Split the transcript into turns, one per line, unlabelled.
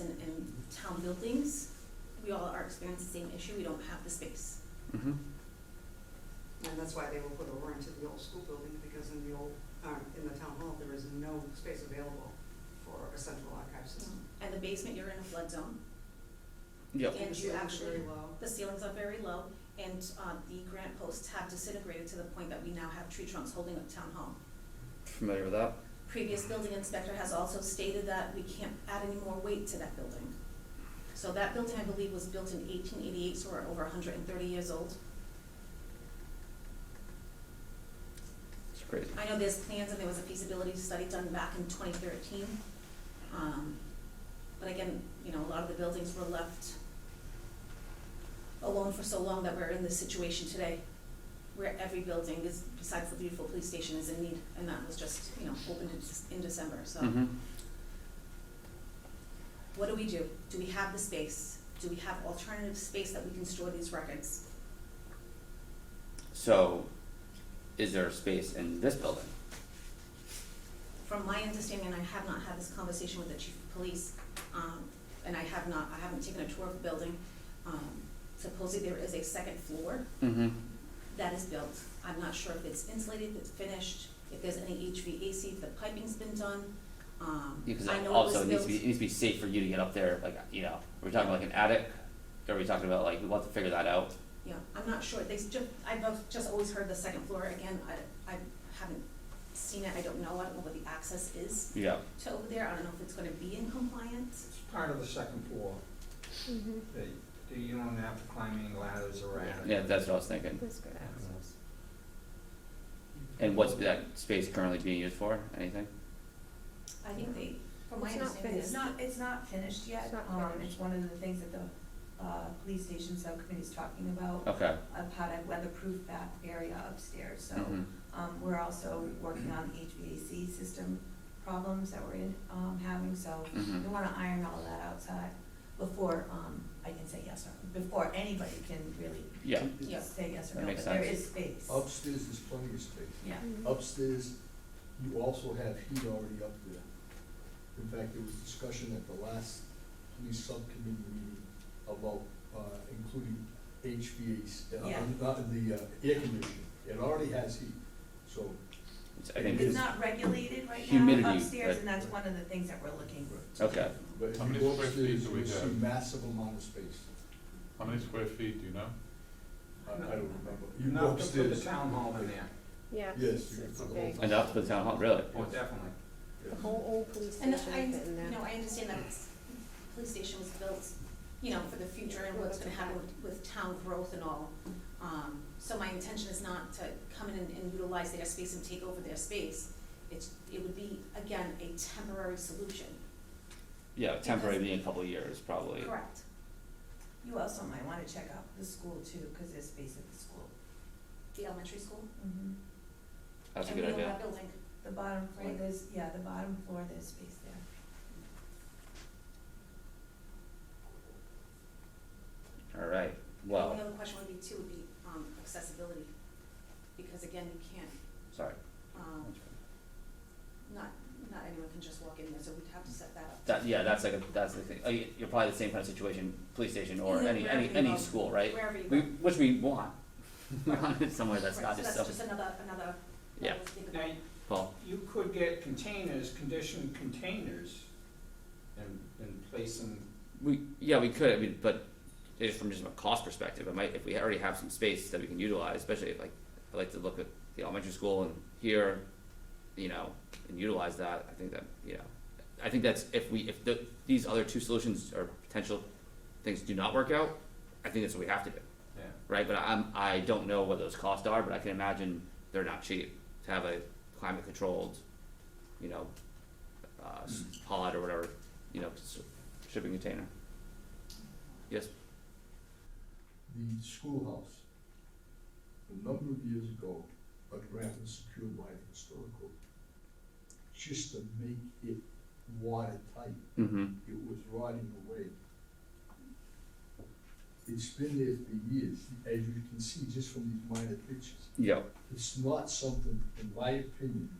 Um, town buildings, we all are experiencing the same issue, we don't have the space.
Mm-hmm.
Mhm.
And that's why they will put over into the old school building, because in the old, uh, in the town hall, there is no space available for a central archive system.
And the basement, you're in a flood zone,
Yep.
And
The
you
ceiling's
actually-
very low.
the ceilings are very low, and, uh, the grant posts have disintegrated to the point that we now have tree trunks holding up town hall.
Familiar with that?
Previous building inspector has also stated that we can't add any more weight to that building. So that building, I believe, was built in eighteen eighty-eight, so we're over hundred and thirty years old.
It's crazy.
I know there's plans and there was a feasibility study done back in twenty thirteen. Um, but again, you know, a lot of the buildings were left alone for so long that we're in this situation today, where every building is, besides the beautiful police station, is in need, and that was just, you know, opened in, in December, so.
Mm-hmm.
What do we do? Do we have the space? Do we have alternative space that we can store these records?
So, is there a space in this building?
From my understanding, and I have not had this conversation with the chief of police, um, and I have not, I haven't taken a tour of the building. Um, supposedly there is a second floor
Mm-hmm.
that is built. I'm not sure if it's insulated, if it's finished, if there's any HVAC, if the piping's been done. Um,
Because
I know it was
also it needs to be,
built-
it needs to be safe for you to get up there, like, you know, are we talking about like an attic? Are we talking about like, we'll have to figure that out?
Yeah, I'm not sure, they just, I've al- just always heard the second floor, again, I, I haven't seen it, I don't know, I don't know what the access is
Yeah.
to over there, I don't know if it's gonna be in compliance.
It's part of the second floor. That that you don't have to climb any ladders or anything.
Yeah, that's what I was thinking.
Whisper access.
And what's that space currently being used for? Anything?
I think they, from my
It's not
understanding,
It's
it's
not, it's not finished yet.
It's not
Um,
finished.
It's one of the things that the, uh, police station subcommittee's talking about,
Okay.
of how to weatherproof that area upstairs, so.
Mhm.
Um, we're also working on HVAC system problems that we're in, um, having, so
Mhm.
we wanna iron all that outside before, um, I can say yes or, before anybody can really
Yeah.
Yeah.
say yes
That
or no,
makes
but there
sense. Oh,
is space.
Upstairs, there's plenty of space.
Yeah.
Upstairs, you also have heat already up there. In fact, there was discussion at the last police subcommittee meeting about, uh, including HVAC,
Yeah.
uh, not the, uh, air conditioning. It already has heat, so
It's- I think
It's
it's,
not regulated right
Humidity,
now upstairs,
but-
and that's one of the things that we're looking to do.
okay.
But if
How
you
many
go
square feet
upstairs,
do
you
we
will see
have?
massive amount of space.
How many square feet, do you know?
I I don't remember.
You're
You
not
go
gonna put the
upstairs.
town hall in there.
Yeah.
Yes, you
It's
could put
big.
all-
And up to the town hall, really?
Oh, definitely.
yeah.
The whole old police
And
station
I,
fit in there.
you know, I understand that it's, police station was built, you know, for the future and what's gonna happen with, with town growth and all. Um, so my intention is not to come in and- and utilize their space and take over their space. It's, it would be, again, a temporary solution.
Yeah, temporary being a couple of years, probably.
Correct.
You also might wanna check out the school too, cause there's space at the school.
The elementary school.
Mm-hmm.
That's a good
And we own
idea.
that building.
The bottom floor,
Right.
there's, yeah, the bottom floor, there's space there.
All right.
Well,
Well,
Another question would be too, would be, um, accessibility, because again, you can't,
sorry.
um, not, not anyone can just walk in there, so we'd have to set that up.
That, yeah, that's like a, that's the thing. Uh, you- You're probably the same kind of situation, police station or
Yeah,
any, any,
wherever you go.
any school, right?
Wherever you go.
We, which we want. We
Right.
want it somewhere that's
Right,
not just
So
some,
that's just another, another.
Yeah.
level to think
Now,
about.
well,
you could get containers, conditioned containers, and, and place them,
we, yeah, we could, I mean, but if from just a cost perspective, it might, if we already have some space that we can utilize, especially if like, I like to look at the elementary school and here, you know, and utilize that, I think that, you know, I think that's, if we, if the, these other two solutions or potential things do not work out, I think that's what we have to do.
yeah.
right? But I'm I don't know what those costs are, but I can imagine they're not cheap to have a climate controlled, you know, uh, s- pod or whatever, you know, s- shipping container. Yes.
the schoolhouse. A number of years ago, a grant was secured by the historical, just to make it watertight.
Mm-hmm.
It was rotting away. It's been there for years, as you can see just from these minor pictures.
Yeah.
It's not something, in my opinion,